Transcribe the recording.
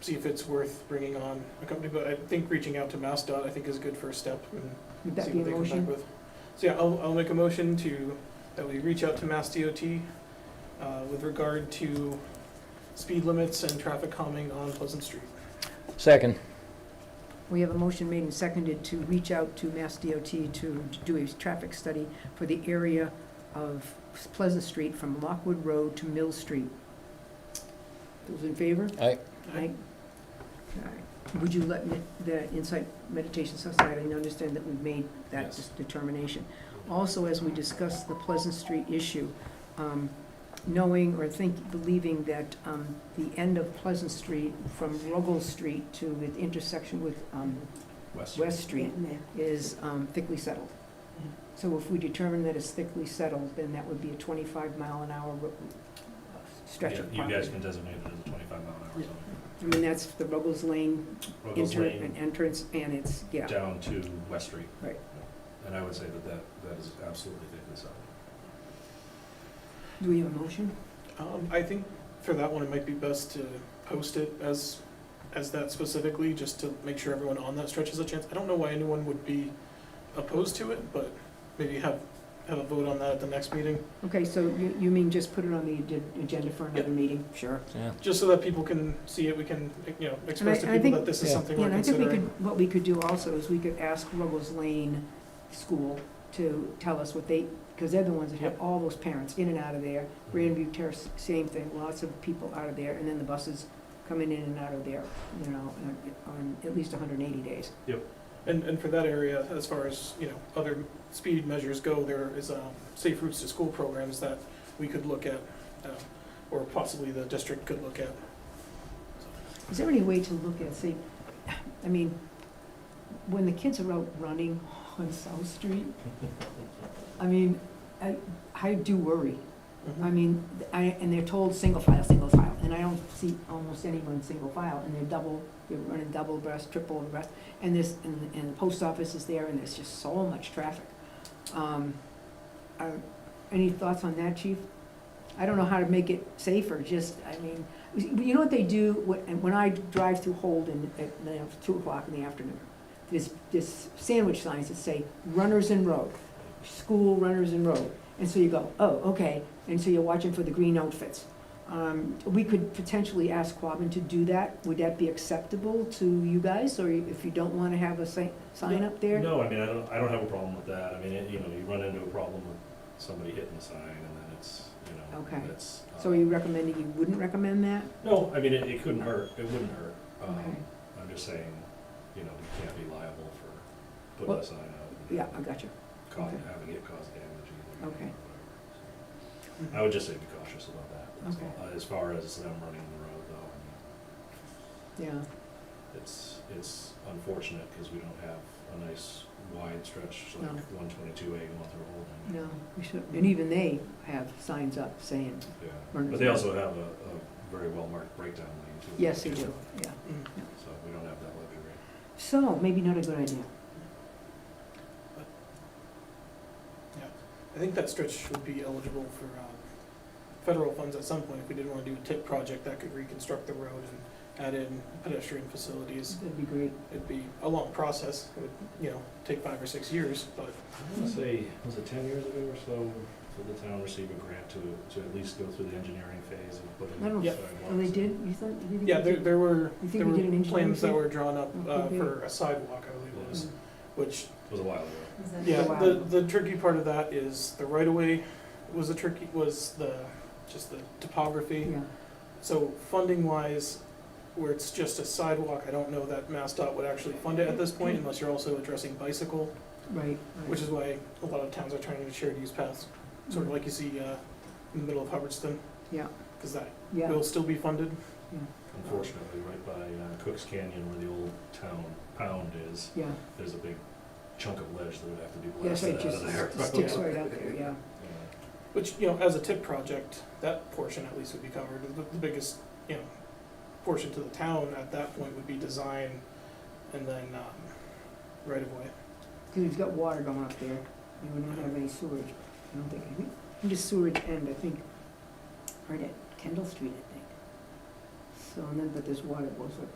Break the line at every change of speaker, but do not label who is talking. see if it's worth bringing on a company, but I think reaching out to MassDOT, I think is a good first step. and
Would
see
that be a
what they come back
motion?
with. So yeah, I'll, I'll make a motion to, that we reach out to Mass DOT uh, with regard to speed limits and traffic calming on Pleasant Street.
Second.
We have a motion made and seconded to reach out to Mass DOT to do a traffic study for the area of Pleasant Street from Lockwood Road to Mill Street. Those in favor?
Aye.
Aye. Aye. Would you let me- the Insight Meditation Society understand that we've made that
Yes.
determination? Also, as we discuss the Pleasant Street issue, um, knowing or think, believing that um, the end of Pleasant Street from Ruggles Street to the intersection with um, West Street is um, thickly settled.
Mhm.
So if we determine that it's thickly settled, then that would be a 25 mile an hour ro- stretch of
You
property.
guys can designate it as a twenty-five mile an hour zone.
I mean, that's the Ruggles Lane
Ruggles
enter,
Lane
an entrance, and it's, yeah.
down to West Street.
Right.
And I would say that that, that is absolutely taken aside.
Do we have a motion?
Um, I think for that one, it might be best to post it as, as that specifically, just to make sure everyone on that stretch has a chance. I don't know why anyone would be opposed to it, but maybe have, have a vote on that at the next meeting,
Okay, so you, you mean just put it on the agen- agenda for another meeting? Sure.
Yeah.
just so that people can see it, we can, you know, express to
And I- I
people
think-
that this is
Yeah.
something
Yeah,
we're
and I think we
considering.
could, what we could do also is we could ask Ruggles Lane School to tell us what they, because they're the ones that have all those parents in and out of there. Grandview Terrace, same thing, lots of people out of there, and then the buses coming in and out of there, you know, on- on at least 180 days.
And, and for that area, as far as, you know, other speed measures go, there is, um, safe routes to school programs that we could look at, uh, or possibly the district could look at.
Is there any way to look at, see, I mean, when the kids are out running on South Street, I mean, I, I do worry. I mean, I, and they're told single file, single file, and I don't see almost anyone single file, and they're double, they're running double breast, triple breast, and this, and, and the post office is there, and there's just so much traffic. Um, are, any thoughts on that, chief? I don't know how to make it safer, just, I mean, you know what they do, when, and when I drive through Holden at, you know, two o'clock in the afternoon, there's, there's sandwich signs that say runners in road, school runners in road, and so you go, oh, okay, and so you're watching for the green outfits. Um, we could potentially ask Quabbin to do that, would that be acceptable to you guys, or if you don't wanna have a sign, sign up there?
No, I mean, I don't, I don't have a problem with that. I mean, it- you know, you run into a problem with somebody hitting the sign and then it's, you know,
Okay.
that's. uh,
So are you recommending, you wouldn't recommend that?
No, I mean, it, it couldn't hurt. It wouldn't hurt. Um,
Okay.
I'm just saying, you know, you can't be liable for putting
Well,
a sign out.
Yeah, I got you.
Cause,
okay.
having it cause damage either.
Okay.
or whatever. I would just say be cautious about that. that's
Okay.
all. Uh, As far as them running the road though, I
yeah,
mean, it's, it's unfortunate because we don't have a nice wide stretch like
No.
one twenty-two A going through Holden.
no, we should, and even they have signs up saying,
Yeah,
Running
but they
through.
also have a, a very well marked breakdown lane too.
yes, they do, yeah.
Mm.
So we don't have that luxury.
So, maybe not a good idea.
I think that stretch would be eligible for, um, federal funds at some point, if we did wanna do a tip project that could reconstruct the road and add in pedestrian facilities.
That'd be great.
It'd be a long process, it would, you know, take five or six years, but
I want to say, was it ten years ago or so, did the town receive a grant to, to at least go through the engineering phase and put in
I don't-
sidewalks?
Oh, they did, you thought, you think?
Yeah,
they
there,
did?
there were,
You think
there
we did an
were
engineering
plans that
fee?
were drawn up
Oh,
uh,
okay. Mm-hmm.
for a sidewalk, I believe
Oh,
it was,
Yes.
which,
It was a while ago.
yeah,
Wow.
the, the tricky part of that is the right of way was the tricky, was the, just the topography.
Yeah,
So funding wise, where it's just a sidewalk, I don't know that MassDOT would actually fund it at this point unless you're also addressing bicycle,
right, right.
which is why a lot of towns are trying to shared use paths, sort of like you see, uh, in the middle of Hubbardston.
Mm-hmm. Yeah.
Cause that
Yeah,
will still be funded.
Unfortunately, right by uh, Cook's Canyon where the old town pound is,
yeah,
there's a big chunk of ledge that would have to be
yeah, so
blasted
it
out of there.
just sticks right out there, yeah.
Yeah.
Which, you know, as a tip project, that portion at least would be covered. The, the biggest, you know, portion to the town at that point would be design and then, um, right of way.
Because we've got water going up there, and we don't have any sewage, I don't think, I think, I think just sewage end, I think, right at Kendall Street, I think. So, and then, but there's water that goes up